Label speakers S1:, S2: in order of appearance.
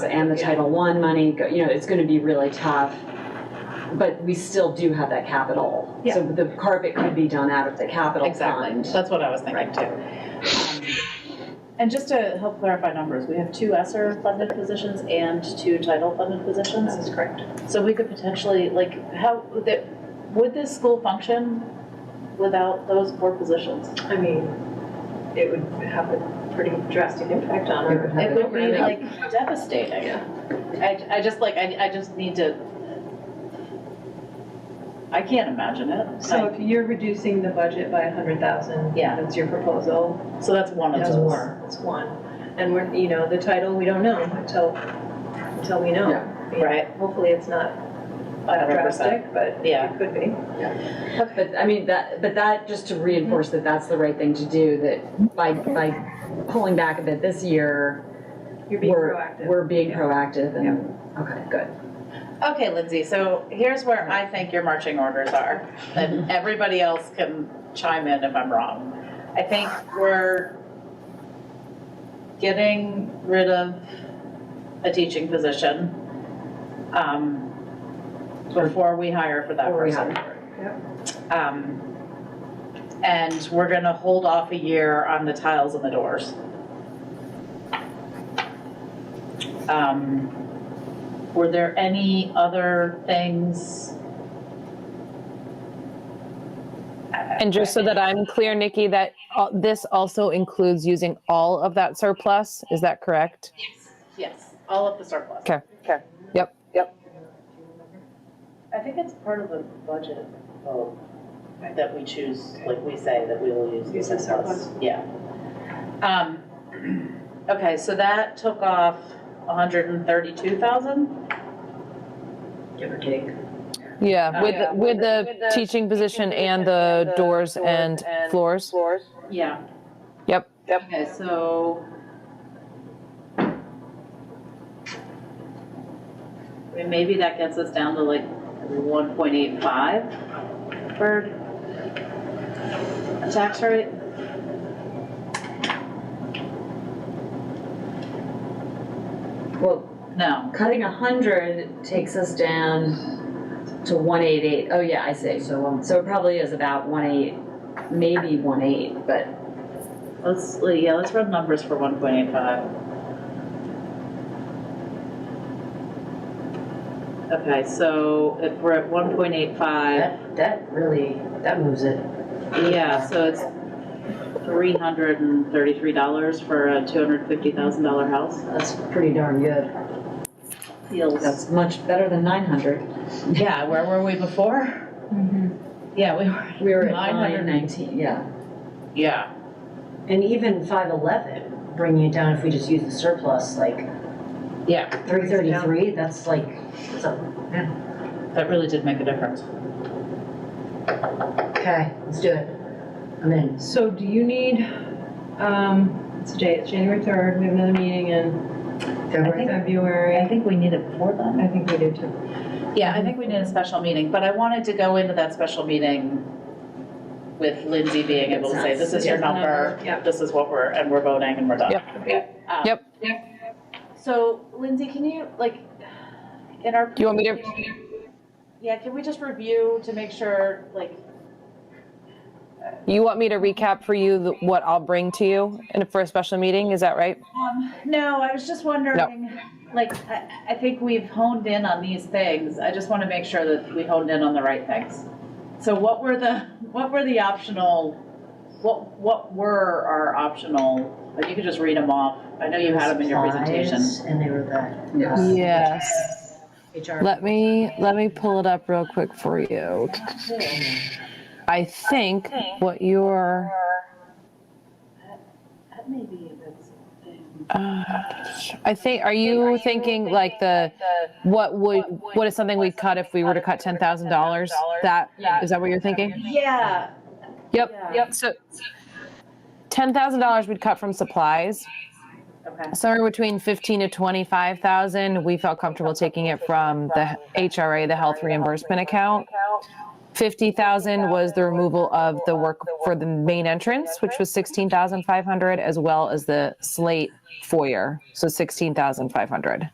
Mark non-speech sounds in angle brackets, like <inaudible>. S1: and the
S2: Yeah.
S1: Title I money, go- you know, it's gonna be really tough. But we still do have that capital.
S2: Yeah.
S1: So the carpet could be done out of the capital
S2: Exactly,
S1: fund.
S2: that's what I was thinking too. Um, And just to help clarify numbers, we have two ESER funded positions and two title funded positions. That's correct. So we could potentially, like, how, that- would this school function without those four positions?
S3: I mean, it would have a pretty drastic impact on our.
S1: It would
S2: It would be
S3: programming.
S2: like devastating.
S3: Yeah.
S2: I, I just like, I, I just need to, I can't imagine it.
S3: So if you're reducing the budget by a hundred thousand.
S2: Yeah.
S3: That's your proposal,
S2: So that's one of
S3: that's
S2: those.
S3: one, that's one. And we're, you know, the title, we don't know until, until we know.
S1: Yeah.
S3: I mean,
S2: Right.
S3: Hopefully it's not uh,
S2: 100%.
S3: drastic, but
S2: Yeah.
S3: it could be.
S1: But, I mean, that, but that, just to reinforce that that's the right thing to do, that by, by pulling back a bit this year,
S3: You're being
S1: we're,
S3: proactive.
S1: we're being proactive and, okay, good.
S2: Okay, Lindsay, so here's where I think your marching orders are, and
S1: Mm-hmm.
S2: everybody else can chime in if I'm wrong. I think we're getting rid of a teaching position um, before we hire for that
S1: Before we
S2: person. Um, And we're gonna hold off a year on the tiles and the doors. Um, Were there any other things?
S4: And just so that I'm clear, Nikki, that uh, this also includes using all of that surplus, is that correct?
S2: Yes, all of the surplus.
S4: Okay.
S5: Okay.
S4: Yep.
S5: Yep.
S2: I think it's part of the budget vote that we choose, like we say that we will use.
S3: Use the surplus.
S2: Yeah. Um, <clears throat> okay, so that took off hundred and thirty-two thousand?
S1: Give or take.
S4: Uh, Yeah, with,
S5: Yeah,
S4: the- with
S5: with
S4: the
S5: the
S4: teaching position and
S5: and
S4: the
S5: the
S4: doors
S5: doors
S4: and
S5: and
S4: floors.
S5: Floors.
S2: Yeah.
S4: Yep.
S5: Yep.
S2: Okay, so. I mean, Maybe that gets us down to like one point eight five for a tax rate?
S1: Well,
S2: No,
S1: cutting a hundred takes us down to one eight eight. Oh yeah, I see. So, um, so it probably is about one eight, maybe one eight, but
S2: let's, yeah, let's run numbers for one point eight five. Okay, so if we're at one point eight five,
S6: That, that really, that moves it.
S2: yeah, so it's three hundred and thirty-three dollars for a two hundred fifty thousand dollar house.
S6: That's pretty darn good.
S2: Feels.
S1: that's much better than nine hundred.
S2: Yeah, where were we before? Yeah, we were.
S1: We were at
S2: Nine hundred.
S1: nine nineteen, yeah.
S2: Yeah.
S6: And even five eleven, bringing it down if we just use the surplus, like
S2: Yeah,
S6: three thirty-three, that's like, it's a-
S2: that really did make a difference.
S6: okay, let's do it. I'm in.
S3: So do you need, um, what's the date? It's January third, we have another meeting in
S6: February third.
S3: February.
S2: think we need it before then.
S3: I think we do too.
S2: Yeah, I think we need a special meeting, but I wanted to go into that special meeting with Lindsay being able to say, this is your
S3: Yes, number,
S2: number,
S3: yep.
S2: this is what we're, and we're voting and we're done.
S4: Yep.
S2: Um,
S4: Yep.
S2: So Lindsay, can you, like, in our.
S4: Do you want me to,
S2: Yeah, can we just review to make sure, like,
S4: you want me to recap for you the- what I'll bring to you in, for a special meeting, is that right?
S2: Um, no, I was just wondering, like, I, I think we've honed in on these things. I just want to make sure that we honed in on the right things. So what were the, what were the optional, what, what were our optional, like, you could just read them off. I know you had them in your presentation.
S6: Supplies, And they were that.
S1: Yes.
S4: Yes.
S6: HR.
S4: Let me, let me pull it up real quick for you. I think what your
S2: That may be- that's a thing.
S4: uh, I think, are you thinking like the, what would, what is something we'd cut if we were to cut ten thousand dollars? That, is that what you're thinking?
S2: Yeah,
S4: Yep,
S2: Yeah.
S4: yep, so. Ten thousand dollars we'd cut from supplies,
S2: okay,
S4: somewhere between fifteen to twenty-five thousand, we felt comfortable taking it from the HRA, the health reimbursement account. Fifty thousand was the removal of the work for the main entrance, which was sixteen thousand five hundred, as well as the slate foyer, so sixteen thousand five hundred.